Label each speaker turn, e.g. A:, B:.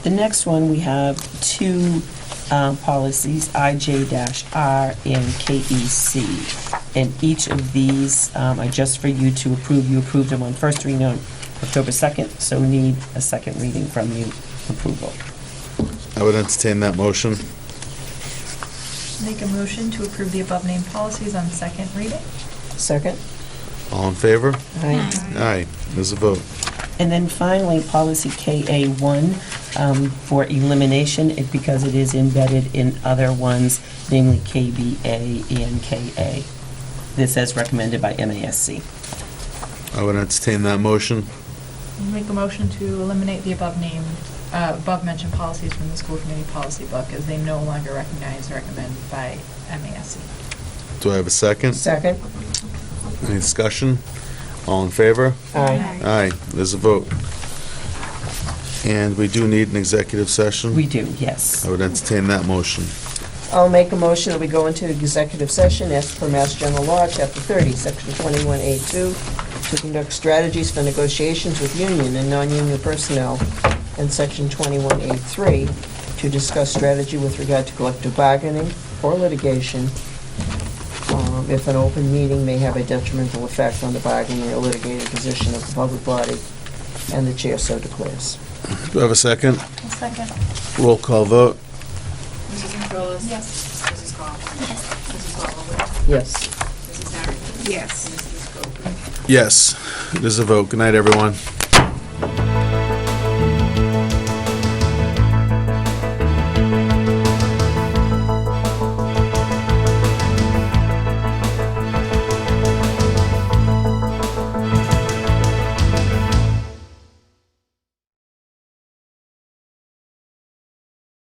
A: The next one, we have two uh, policies, IJ-R and KEC. E And each of these um, are just for you to approve. You approved them on first reading on October 2nd, so we need a second reading from you approval.
B: I would entertain that motion.
C: Make a motion to approve the above named policies on second reading.
A: Second?
B: All in favor?
A: Aye.
B: Aye. There's a vote.
A: And then finally, policy KA1 um, for elimination, it- because it is embedded in other ones, namely KBA and KA. This as recommended by MASC.
B: I would entertain that motion.
C: Make a motion to eliminate the above named, uh, above mentioned policies from the school committee policy book as they no longer recognize or recommend by MASC.
B: Do I have a second?
A: Second.
B: Any discussion? All in favor?
A: Aye.
B: Aye. There's a vote. And we do need an executive session.
A: We do, yes.
B: I would entertain that motion.
D: I'll make a motion that we go into executive session as per Mass General Law, Chapter 30, Section 21A2, to conduct strategies for negotiations with union and non-union personnel, and Section 21A3, to discuss strategy with regard to collective bargaining or litigation, um, if an open meeting may have a detrimental effect on the bargaining or litigating position of the public body, and the chair so declares.
B: Do I have a second?
C: second.
B: Roll call vote.
E: Mrs. Controlas?
C: Yes.
E: Mrs. Coughlin? Yes. Mrs. Ballwood?
D: Yes.
E: Mrs. Harrington? Yes. Mrs. Schofield?
B: Yes. There's a vote. Good night, everyone.